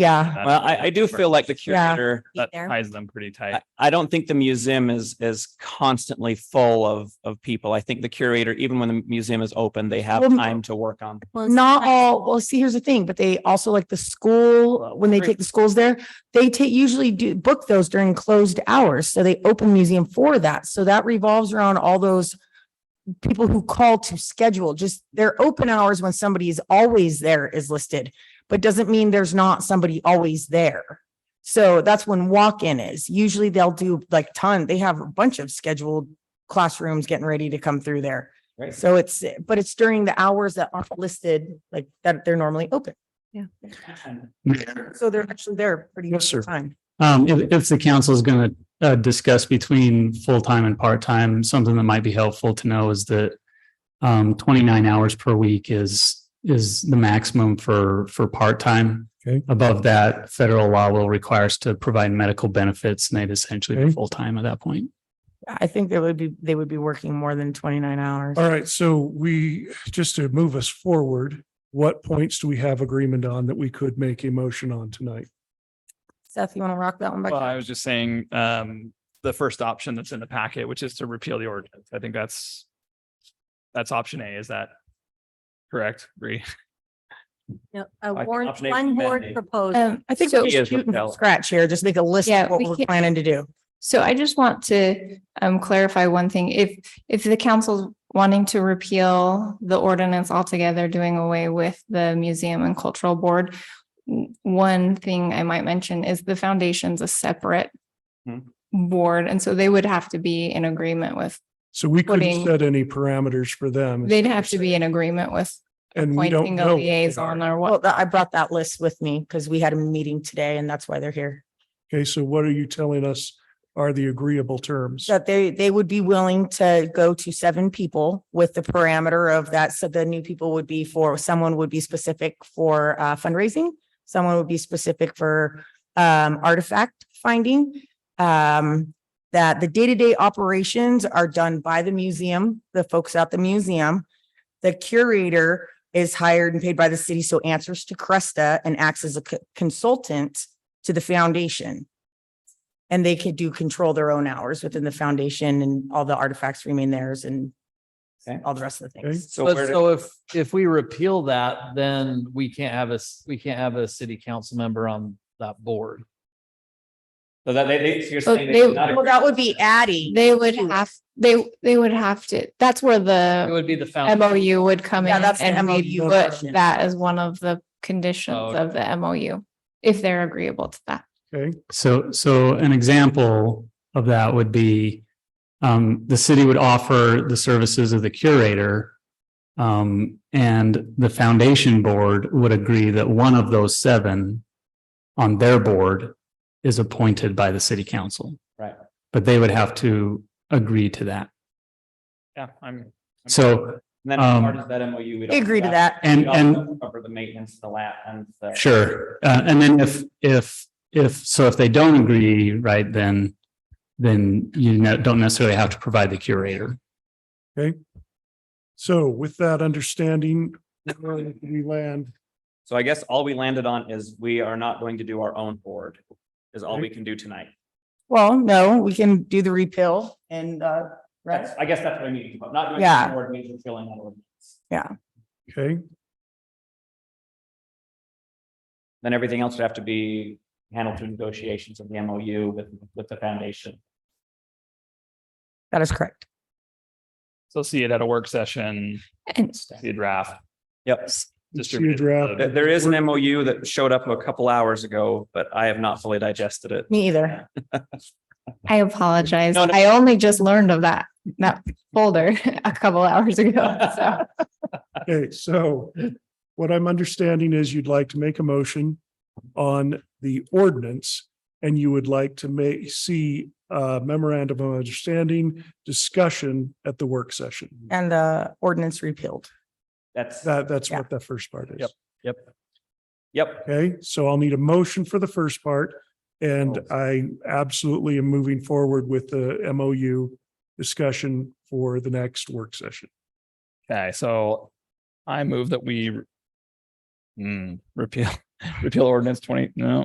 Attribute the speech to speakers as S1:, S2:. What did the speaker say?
S1: Yeah.
S2: That's
S3: Well,
S2: what
S3: I, I do
S2: prefer.
S3: feel like the
S1: Yeah.
S3: curator,
S2: That
S1: There.
S2: ties them pretty tight.
S3: I, I don't think the museum is, is constantly full of, of people. I think the curator, even when the museum is open, they have
S1: Well, m-
S3: time to work on.
S4: Well, it's
S1: Not
S4: not-
S1: all, well, see, here's the thing, but they also like the school, when they
S3: Right.
S1: take the schools there, they take, usually do book those during closed hours. So they open museum for that. So that revolves around all those people who call to schedule, just their open hours when somebody is always there is listed, but doesn't mean there's not somebody always there. So that's when walk-in is. Usually they'll do like ton, they have a bunch of scheduled classrooms getting ready to come through there.
S3: Right.
S1: So it's, but it's during the hours that aren't listed, like that they're normally open. So they're actually there pretty
S5: Yes,
S1: much
S5: sir.
S1: time.
S5: Um, if, if the council is going to, uh, discuss between full-time and part-time, something that might be helpful to know is that um, twenty-nine hours per week is, is the maximum for, for part-time.
S6: Okay.
S5: Above that, federal law will require us to provide medical benefits and they'd essentially be
S6: Okay.
S5: full-time at that point.
S1: I think they would be, they would be working more than twenty-nine hours.
S6: All right, so we, just to move us forward, what points do we have agreement on that we could make a motion on tonight?
S1: Seth, you want to rock that one back?
S2: Well, I was just saying, um, the first option that's in the packet, which is to repeal the ordinance. I think that's that's option A. Is that correct? Bree?
S4: no, a
S3: Like
S4: warrant,
S3: option A
S4: one
S3: was
S4: board
S3: amended.
S4: proposal.
S1: Um, I think
S7: So-
S1: we
S3: He
S1: should
S3: is
S1: shoot from
S3: repelled.
S1: scratch here, just make a list
S7: Yeah,
S1: of what
S7: we
S1: we're
S7: can't-
S1: planning to do.
S7: So I just want to um clarify one thing. If if the council's wanting to repeal the ordinance altogether, doing away with the museum and cultural board, w- one thing I might mention is the foundation's a separate
S3: Hmm.
S7: board, and so they would have to be in agreement with,
S6: So we couldn't
S7: Putting-
S6: set any parameters for them.
S7: they'd have to be in agreement with
S6: And we don't
S7: appointing
S6: know.
S7: a
S6: what they
S7: liaison
S6: are.
S7: or
S1: Well,
S7: what.
S1: tha- I brought that list with me because we had a meeting today and that's why they're here.
S6: Okay, so what are you telling us are the agreeable terms?
S1: That they, they would be willing to go to seven people with the parameter of that. So the new people would be for, someone would be specific for uh, fundraising. Someone would be specific for um, artifact finding. Um, that the day-to-day operations are done by the museum, the folks at the museum. The curator is hired and paid by the city, so answers to Cresta and acts as a co- consultant to the foundation. And they could do control their own hours within the foundation and all the artifacts remain theirs and
S3: Okay.
S1: all the rest of the things.
S3: So
S8: But
S3: where do-
S8: so if, if we repeal that, then we can't have a, s- we can't have a city council member on that board.
S3: so that they, they, you're
S7: So
S3: saying they
S7: they-
S3: would not
S1: Well,
S3: agree.
S1: that would be adding.
S7: They would have, they they would have to, that's where
S8: It
S7: the
S8: would be the
S3: Oh.
S8: found.
S7: MOU would come in
S1: Yeah, that's the
S7: and we
S1: MOU
S7: put
S1: version.
S7: that as one of the conditions
S8: Oh,
S7: of the MOU, if they're agreeable to that.
S6: Okay,
S5: So, so an example of that would be um, the city would offer the services of the curator. Um, and the foundation board would agree that one of those seven on their board is appointed by the city council.
S3: Right.
S5: But they would have to agree to that.
S2: Yeah, I'm. I'm-
S5: So,
S3: And then as part
S5: um,
S3: of that MOU. we
S1: They
S3: don't-
S1: agree to that.
S3: we
S5: and,
S3: also
S5: and
S3: Cover the maintenance, the lap and the.
S5: Sure. Uh, and then if, if, if, so if they don't agree, right, then, then you ne- don't necessarily have to provide the curator.
S6: so with that understanding, where did we land.
S3: So I guess all we landed on is we are not going to do our own board is all we can do tonight.
S1: Well, no, we can do the repeal and, uh, right.
S3: That's, I guess that's what I mean, but not doing.
S1: Yeah.
S3: our Board means we're filling out ordinance.
S6: Okay,
S3: Then everything else would have to be handled through negotiations of the MOU with, with the foundation.
S1: That is correct.
S2: So see it at a work session,
S7: And
S2: see a draft.
S3: Yep.
S2: distributed to
S6: draft.
S3: There-
S2: the-
S3: there is an MOU that showed up a couple hours ago, but I have not fully digested it.
S1: Me either.
S7: I apologize.
S3: No, no.
S7: I only just learned of that, that folder a couple hours ago. So
S6: okay, so what I'm understanding is you'd like to make a motion on the ordinance and you would like to make, see a memorandum of understanding discussion at the work session.
S1: And the ordinance repealed.
S3: That's,
S6: That, that's
S1: Yeah.
S6: what that first part is.
S2: Yep.
S3: yep.
S6: Okay, so I'll need a motion for the first part. And I absolutely am moving forward with the MOU discussion for the next work session.
S2: Okay, so I move that we re- Hmm, repeal repeal ordinance twenty, no.